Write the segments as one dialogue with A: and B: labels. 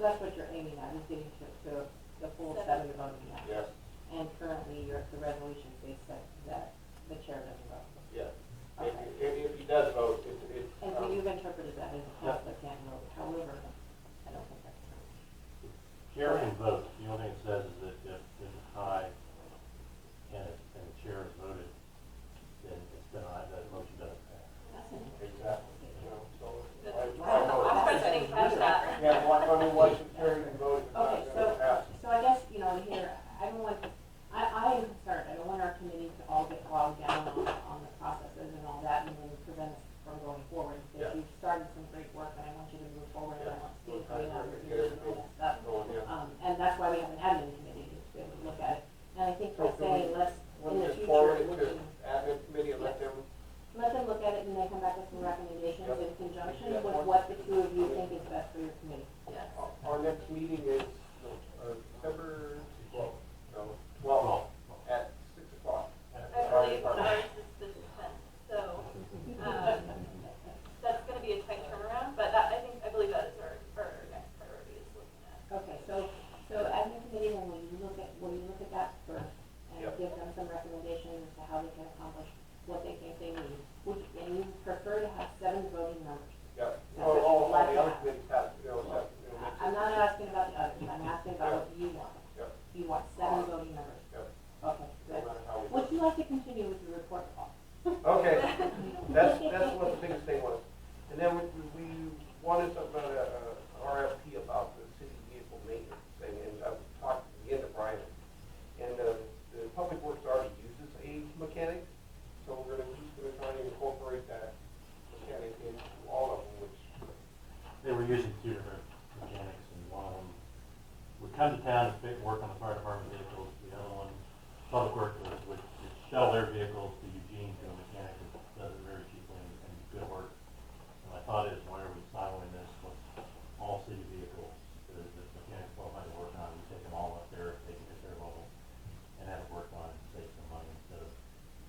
A: claiming that he's getting to, to the full
B: Seven.
A: seven voting yes.
C: Yes,
A: And currently, your, the resolution states that, that the chair doesn't vote.
C: yes. If,
A: Okay.
C: if, if he does vote, it, it,
A: And so
C: um,
A: you've interpreted that as a council can vote, however, I don't think that's true.
D: Chair can vote, the only thing it says is that if it's high and it, and the chair has voted, then it's denied, that motion doesn't pass.
A: That's an interesting
C: exactly, you know,
A: statement.
C: so.
B: I
C: I- I
B: don't know,
C: voted.
B: I'm president, catch that.
C: Yeah, one, only one security voted, it's
A: Okay,
C: not gonna
A: so,
C: pass.
A: so I guess, you know, here, I don't want, I, I am concerned, I don't want our committee to all get bogged down on, on the processes and all that, and then prevent us from going forward. Because
C: Yeah.
A: you've started some great work, and I want you to move forward, and I want to see
C: Yeah.
A: you doing that, you're doing all that stuff.
C: Going, yeah.
A: Um, and that's why we have an admin committee to be able to look at it. And I think
C: So
A: by
C: can
A: saying,
C: we-
A: let's, in
C: We'll
A: the
C: just
A: future,
C: forward it
A: we
C: to
A: can,
C: admin committee and let them,
A: let them look at it and then come back with some recommendations
C: Yep.
A: in conjunction
C: Yeah.
A: with what the two of you think is best for your committee.
B: Yes.
C: our- our next meeting is, uh, September. Twelve. No, twelve, at six o'clock.
B: I believe ours is the tenth, so, um, that's gonna be a tight turnaround, but that, I think, I believe that is our, our next priority is looking at.
A: Okay, so, so admin committee, when we look at, when we look at that first and
C: Yep.
A: give them some recommendations as to how they can accomplish what they think they need, which, and you prefer to have seven voting members.
C: Yeah,
A: That's
C: all,
A: it.
C: all, all
A: Like
C: the other
A: that.
C: committees have, you know, have, you know,
A: I-
C: make
A: I'm not asking about the others, I'm asking about what you want.
C: Yep.
A: You want seven voting members.
C: Yep.
A: Okay,
C: it, no
A: good.
C: matter how we.
A: Would you like to continue with your report, Paul?
C: Okay, that's, that's what the biggest thing was. And then we, we wanted something about a, a RFP about the city vehicle maintenance thing, and I talked again to Brian. And, uh, the public works already uses a mechanic, so we're gonna, just gonna try to incorporate that mechanic into all of them, which
D: They were using two different mechanics, and one of them would come to town and fit work on the fire department vehicles, the other one, public works would, would sell their vehicles to Eugene, to a mechanic who does it very cheaply and, and good work. And I thought is, why are we siloing this with all city vehicles, the, the mechanics qualified to work on, we take them all up there, if they can hit their level, and have it worked on, and save some money, instead of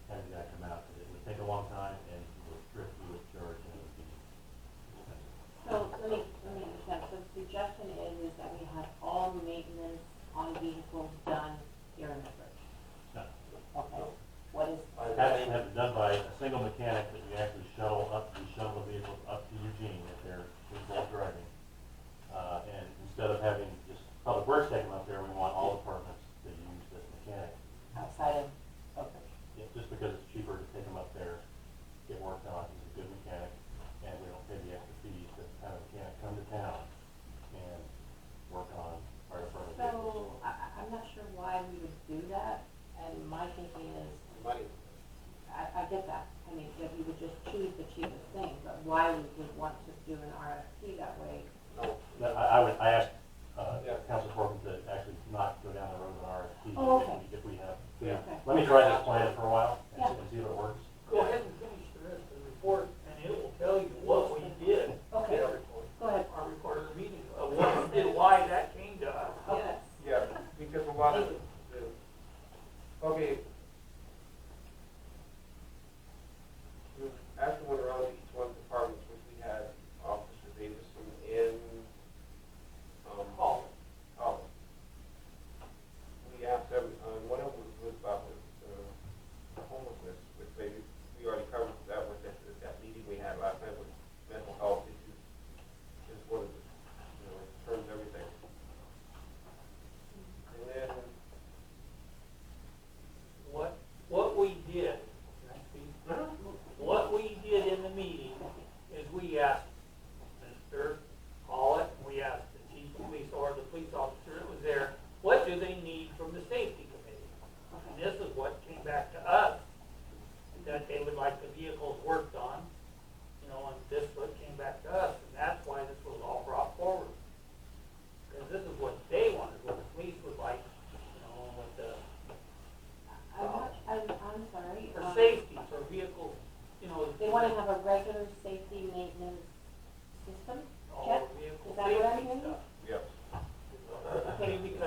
D: having that come out, 'cause it would take a long time, and it would trip, we would charge, and it would be expensive.
A: So let me, let me understand, so the suggestion is, is that we have all the maintenance on vehicles done here in Medford?
D: No.
A: Okay, what is,
C: I.
D: Actually, have it done by a single mechanic that we actually shuttle up, we shuttle the vehicles up to Eugene if they're involved driving. Uh, and instead of having just public works take them up there, we want all departments to use this mechanic.
A: outside of, okay,
D: Yeah, Just because it's cheaper to take them up there, get worked on, he's a good mechanic, and we don't pay the extra fees to have a mechanic come to town and work on our department vehicles.
A: so, I, I- I'm not sure why we would do that, and my thinking is,
C: Money.
A: I, I get that, I mean, that we would just choose the cheapest thing, but why we would want to do an RFP that way?
C: No.
D: No, I, I would, I asked, uh,
C: Yeah.
D: Council Corbin to actually not go down the road with an RFP.
A: Oh,
D: if
A: okay.
D: we- If we have,
C: Yeah.
A: Okay.
D: let me try this plan for a while and see-
A: Yeah.
D: and see if it works.
E: Go ahead and finish the rest of the report, and it will tell you what we did.
A: Okay, go ahead,
E: Our recorder meeting, uh, what we did, why that came to us.
A: okay,
C: Yeah, because a lot of the, the- okay. We Actually went around to each one of the departments, which we had Officer Davison in, um.
E: Call.
C: Call. We asked them, uh, one of them was about the, uh, homelessness, which they, we already covered that with that, that meeting we had last night with mental health issues. Is one of the, you know, it turns everything. And then,
E: What, what we did, can I speak? what we did in the meeting is we asked Mr. Hollett, we asked the chief police or the police officer that was there, what do they need from the safety committee?
A: okay.
E: And this is what came back to us, that they would like the vehicles worked on, you know, and this what came back to us, and that's why this was all brought forward. Because this is what they wanted, what the police would like, you know, and what the,
A: I'm not, I'm, I'm sorry.
E: for
A: um,
E: safety, for vehicles, you know.
A: They wanna have a regular safety maintenance system?
E: All
A: Jeff,
E: vehicle
A: is that what I'm
E: safety
A: hearing?
E: stuff.
C: yes,
E: I mean, because